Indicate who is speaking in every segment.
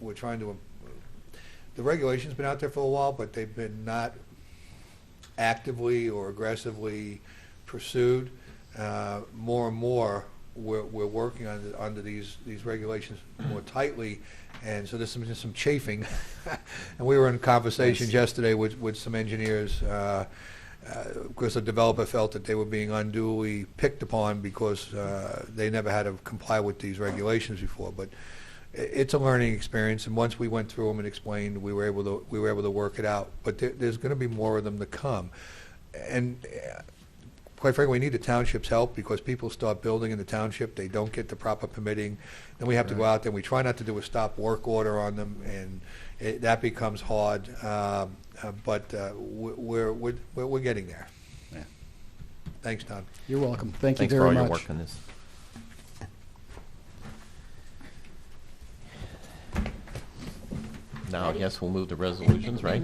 Speaker 1: we're trying to, uh, the regulation's been out there for a while, but they've been not actively or aggressively pursued. Uh, More and more, we're, we're working under, under these, these regulations more tightly, and so there's some, just some chafing. And we were in conversations yesterday with, with some engineers, uh, uh, because the developer felt that they were being unduly picked upon because uh, they never had to comply with these regulations before. But i- it's a learning experience, and once we went through them and explained, we were able to, we were able to work it out. But there, there's going to be more of them to come. And uh, quite frankly, we need the township's help because people start building in the township, they don't get the proper permitting, then we have to go out there, we try not to do a stop work order on them, and it, that becomes hard, um, uh, but, uh, we- we're, we're, we're, we're getting there.
Speaker 2: Yeah.
Speaker 1: Thanks, Don.
Speaker 3: You're welcome. Thank you
Speaker 2: Thanks for all
Speaker 3: very
Speaker 2: your
Speaker 3: much.
Speaker 2: work on this. Now, I guess we'll move to resolutions, right?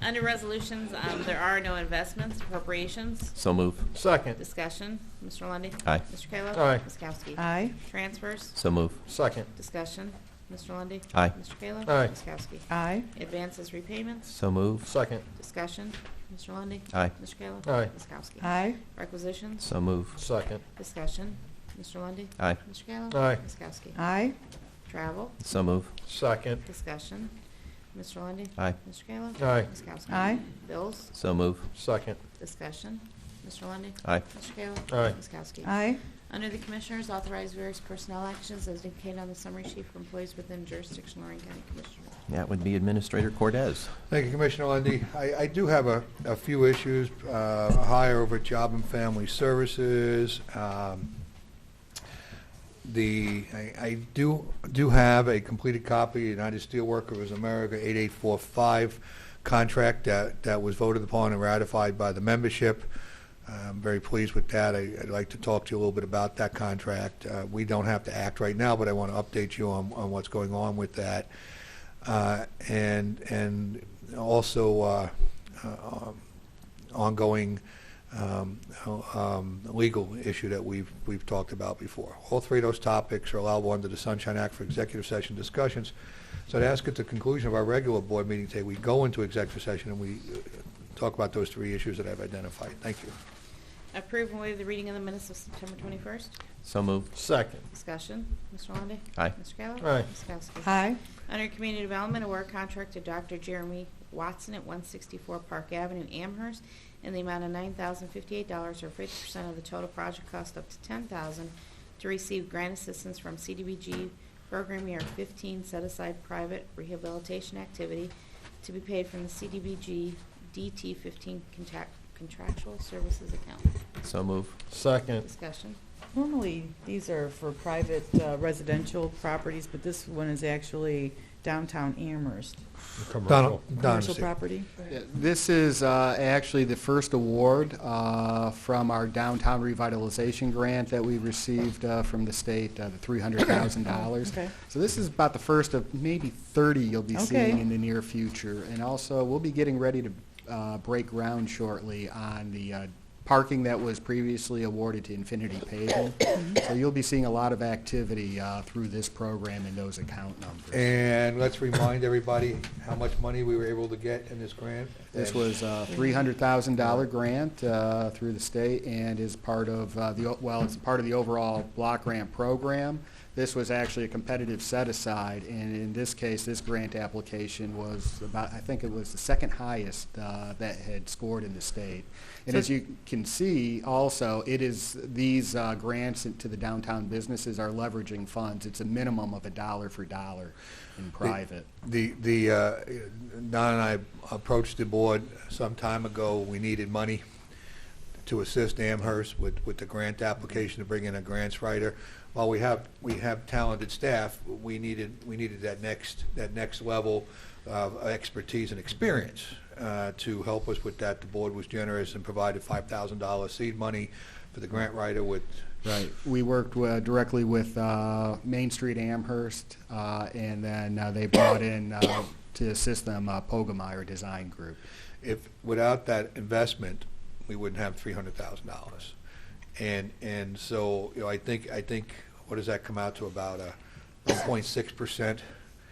Speaker 4: Under resolutions, um, there are no investments, appropriations,
Speaker 2: So move,
Speaker 5: Second,
Speaker 4: discussion. Mr. Lundy.
Speaker 2: Aye.
Speaker 4: Mr. Kayla.
Speaker 5: Aye.
Speaker 4: Ms. Kowski.
Speaker 6: Aye.
Speaker 4: Transfers,
Speaker 2: so move,
Speaker 5: second,
Speaker 4: discussion. Mr. Lundy.
Speaker 2: Aye.
Speaker 4: Mr. Kayla.
Speaker 5: Aye.
Speaker 4: Ms. Kowski.
Speaker 6: Aye.
Speaker 4: Advances, repayments,
Speaker 2: so move,
Speaker 5: second,
Speaker 4: discussion. Mr. Lundy.
Speaker 2: Aye.
Speaker 4: Mr. Kayla.
Speaker 5: Aye.
Speaker 4: Ms. Kowski.
Speaker 6: Aye.
Speaker 4: Requisitions,
Speaker 2: so move,
Speaker 5: second,
Speaker 4: discussion. Mr. Lundy.
Speaker 2: Aye.
Speaker 4: Mr. Kayla.
Speaker 5: Aye.
Speaker 4: Ms. Kowski.
Speaker 6: Aye.
Speaker 4: Travel,
Speaker 2: so move,
Speaker 5: second,
Speaker 4: discussion. Mr. Lundy.
Speaker 2: Aye.
Speaker 4: Mr. Kayla.
Speaker 5: Aye.
Speaker 4: Ms. Kowski.
Speaker 6: Aye.
Speaker 4: Bills,
Speaker 2: so move,
Speaker 5: second,
Speaker 4: discussion. Mr. Lundy.
Speaker 2: Aye.
Speaker 4: Mr. Kayla.
Speaker 5: Aye.
Speaker 4: Ms. Kowski.
Speaker 6: Aye.
Speaker 4: Under the Commissioners, authorize various personnel actions as indicated on the summary sheet for employees within jurisdiction Lorraine County Commissioners.
Speaker 2: that would be Administrator Cordez.
Speaker 1: Thank you, Commissioner Lundy. I, I do have a, a few issues, uh, a hire over at Job and Family Services. Um, The, I, I do, do have a completed copy, of United Steelworkers America 8845 contract that, that was voted upon and ratified by the membership. I'm very pleased with that. I- I'd like to talk to you a little bit about that contract. Uh, We don't have to act right now, but I want to update you on, on what's going on with that. Uh, and and also uh, uh, um, ongoing um, um, legal issue that we've we've talked about before. All three of those topics are allowable under the Sunshine Act for executive session discussions. So to ask at the conclusion of our regular board meeting today, we go into executive session and we uh, talk about those three issues that I've identified. Thank you.
Speaker 4: Approve and waive the reading of the minutes of September 21st.
Speaker 2: So move,
Speaker 5: second,
Speaker 4: Discussion, Mr. Lundey.
Speaker 2: Aye.
Speaker 4: Mr. Kayla.
Speaker 5: Aye.
Speaker 4: Ms. Kowski.
Speaker 6: Aye.
Speaker 4: Under Community Development, award contract to Dr. Jeremy Watson at 164 Park Avenue, Amherst, in the amount of $9,058 or 50% of the total project cost up to $10,000 to receive grant assistance from CDBG Program Year 15 Set Aside Private Rehabilitation Activity to be paid from the CDBG DT 15 contact- Contractual Services Account.
Speaker 2: so move,
Speaker 5: second,
Speaker 4: Discussion.
Speaker 6: Normally, these are for private uh, residential properties, but this one is actually downtown Amherst.
Speaker 1: Don,
Speaker 5: commercial.
Speaker 1: Don,
Speaker 6: Commercial property?
Speaker 7: Yeah, This is uh, actually the first award uh, from our downtown revitalization grant that we received uh, from the state, uh, the $300,000.
Speaker 6: Okay.
Speaker 7: So this is about the first of maybe 30 you'll be
Speaker 6: Okay.
Speaker 7: seeing in the near future. And also, we'll be getting ready to uh, break ground shortly on the uh, parking that was previously awarded to Infinity Paving. So you'll be seeing a lot of activity uh, through this program and those account numbers.
Speaker 1: and let's remind everybody how much money we were able to get in this grant.
Speaker 7: This was uh, a $300,000 grant uh, through the state and is part of uh, the, o- well, it's part of the overall block grant program. This was actually a competitive set-aside, and in this case, this grant application was about, I think it was the second highest uh, that had scored in the state. And as you can see also, it is, these uh, grants to the downtown businesses are leveraging funds. It's a minimum of a dollar for dollar in private.
Speaker 1: The, the, uh, Don and I approached the board some time ago, we needed money to assist Amherst with, with the grant application to bring in a grants writer. While we have, we have talented staff, we needed, we needed that next, that next level of expertise and experience uh, to help us with that. The board was generous and provided $5,000 seed money for the grant writer with,
Speaker 7: Right. We worked wi- directly with uh, Main Street Amherst, uh, and then uh, they brought in uh, to assist them uh, Pogemeyer Design Group.
Speaker 1: if, without that investment, we wouldn't have three hundred thousand dollars. And, and so, you know, I think, I think, what does that come out to about a one uh, point six percent